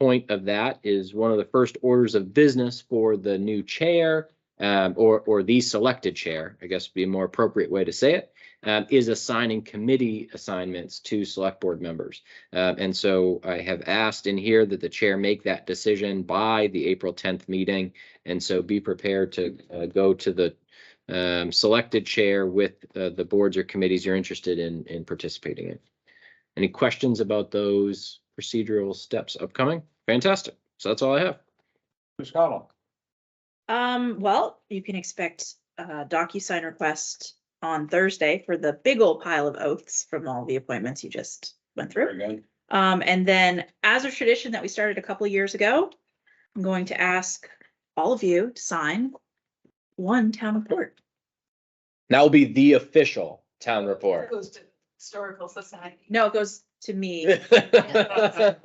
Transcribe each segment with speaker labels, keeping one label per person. Speaker 1: point of that is one of the first orders of business for the new chair um, or, or the selected chair, I guess would be a more appropriate way to say it, um, is assigning committee assignments to select board members. Uh, and so I have asked in here that the chair make that decision by the April tenth meeting. And so be prepared to uh, go to the um, selected chair with uh, the boards or committees you're interested in, in participating in. Any questions about those procedural steps upcoming? Fantastic. So that's all I have.
Speaker 2: Ms. Cottle,
Speaker 3: Um, well, you can expect a DocuSign request on Thursday for the big old pile of oaths from all the appointments you just went
Speaker 2: very
Speaker 3: through.
Speaker 2: good.
Speaker 3: Um, and then as a tradition that we started a couple of years ago, I'm going to ask all of you to sign one town report.
Speaker 1: That will be the official town report.
Speaker 4: Goes to historical society.
Speaker 3: No, it goes to me.
Speaker 1: Sign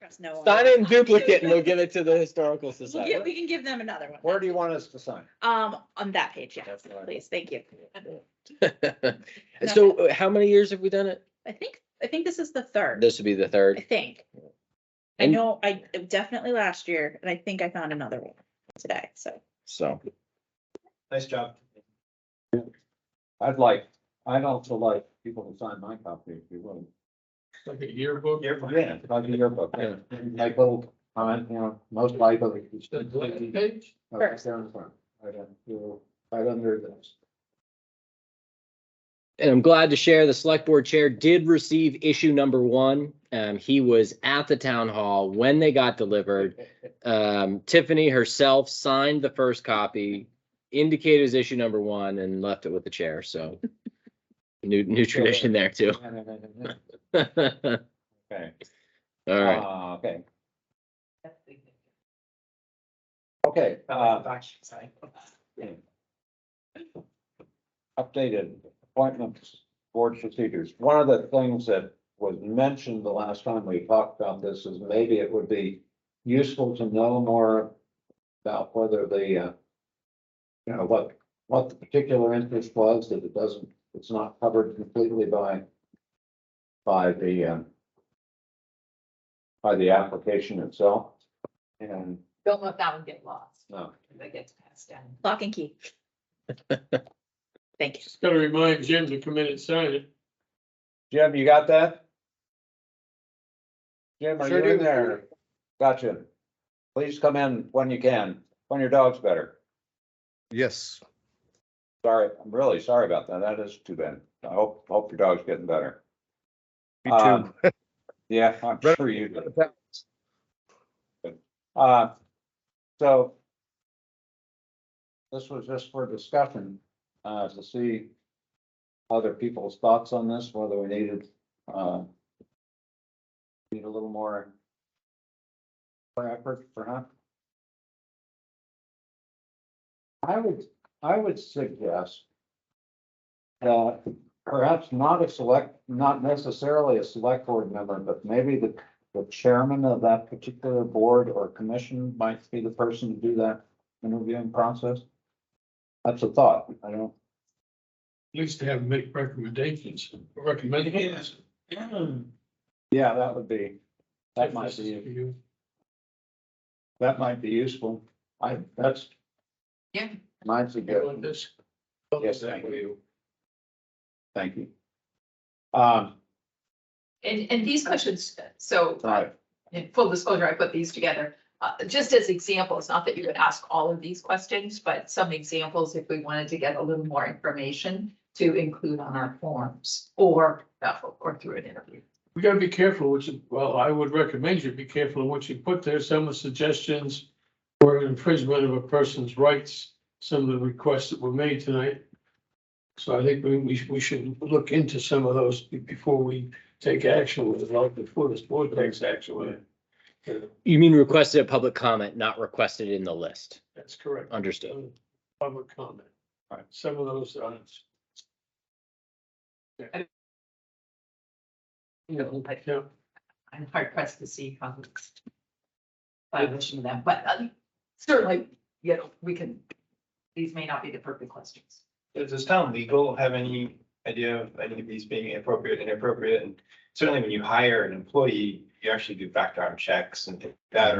Speaker 3: Trust no one.
Speaker 1: in duplicate and we'll give it to the historical
Speaker 3: We'll get-
Speaker 1: society.
Speaker 3: We can give them another one.
Speaker 2: Where do you want us to sign?
Speaker 3: Um, on that page, yeah,
Speaker 2: That's fine.
Speaker 3: please, thank you.
Speaker 1: So uh, how many years have we done it?
Speaker 3: I think, I think this is the third.
Speaker 1: This would be the
Speaker 3: I
Speaker 1: third.
Speaker 3: think. I
Speaker 1: And-
Speaker 3: know, I definitely last year, and I think I found another one today, so.
Speaker 1: So
Speaker 2: Nice job. I'd like, I'd also like people to sign my copy if you will.
Speaker 5: Like a yearbook.
Speaker 2: Yeah, like a yearbook.
Speaker 5: Yeah.
Speaker 2: Like little, uh, you know, most likely. it's
Speaker 5: The
Speaker 2: just-
Speaker 5: blank page?
Speaker 2: Oh, it's down the front. Right on, you know, Right under this.
Speaker 1: And I'm glad to share the select board chair did receive issue number one. Um, he was at the town hall when they got delivered. Um, Tiffany herself signed the first copy, indicated it was issue number one and left it with the chair. So new, new tradition there too. All
Speaker 2: Okay,
Speaker 1: right.
Speaker 2: uh, okay, okay, uh, updated appointments, board procedures. One of the things that was mentioned the last time we talked about this is maybe it would be useful to know more about whether the, uh, you know, what, what the particular interest was, that it doesn't, it's not covered completely by, by the, um, by the application itself. And, uh,
Speaker 4: Don't let that one get lost.
Speaker 2: no,
Speaker 4: That gets passed down.
Speaker 3: Lock and key. Thank you.
Speaker 5: Just gotta remind Jim to come in and sign it.
Speaker 2: Jim, you got that? Jim, are
Speaker 5: Sure
Speaker 2: you in
Speaker 5: do.
Speaker 2: there? Gotcha. Please come in when you can, when your dog's better.
Speaker 6: Yes,
Speaker 2: Sorry, I'm really sorry about that. That is too bad. I hope, hope your dog's getting better.
Speaker 6: me
Speaker 2: Um,
Speaker 6: too.
Speaker 2: Yeah, I'm
Speaker 6: Better-
Speaker 2: sure you do. Uh, so this was just for discussion, uh, to see other people's thoughts on this, whether we needed, uh, need a little more more effort perhaps. I would, I would suggest that perhaps not a select, not necessarily a select board member, but maybe the the chairman of that particular board or commission might be the person to do that interviewing process. That's a thought, I don't.
Speaker 5: At least to have him make recommendations, recommendations.
Speaker 2: Yeah, that would be, that might be,
Speaker 5: You
Speaker 2: that might be useful. I, that's
Speaker 4: Yeah.
Speaker 2: my
Speaker 5: want
Speaker 2: suggestion.
Speaker 5: this?
Speaker 2: Yes, I
Speaker 5: you.
Speaker 2: Thank you. Um,
Speaker 4: And, and these questions, so
Speaker 2: all right,
Speaker 4: in full disclosure, I put these together, uh, just as examples, not that you would ask all of these questions, but some examples if we wanted to get a little more information to include on our forms or, or through an interview.
Speaker 5: We gotta be careful, which, well, I would recommend you be careful of what you put there. Some of the suggestions were infringement of a person's rights, some of the requests that were made tonight. So I think we, we, we should look into some of those be- before we take action with it, like before this board takes action with it. Yeah,
Speaker 1: You mean requested a public comment, not requested in the list.
Speaker 5: That's correct.
Speaker 1: Understood.
Speaker 5: Public comment.
Speaker 2: Right.
Speaker 5: Some of those uh, are. Yeah. Yeah.
Speaker 4: I'm hard pressed to see how it's violation of that, but uh, certainly, you know, we can, these may not be the perfect questions.
Speaker 7: Does does town legal have any idea of any of these being appropriate, inappropriate? And certainly when you hire an employee,
Speaker 2: you actually do background checks and that,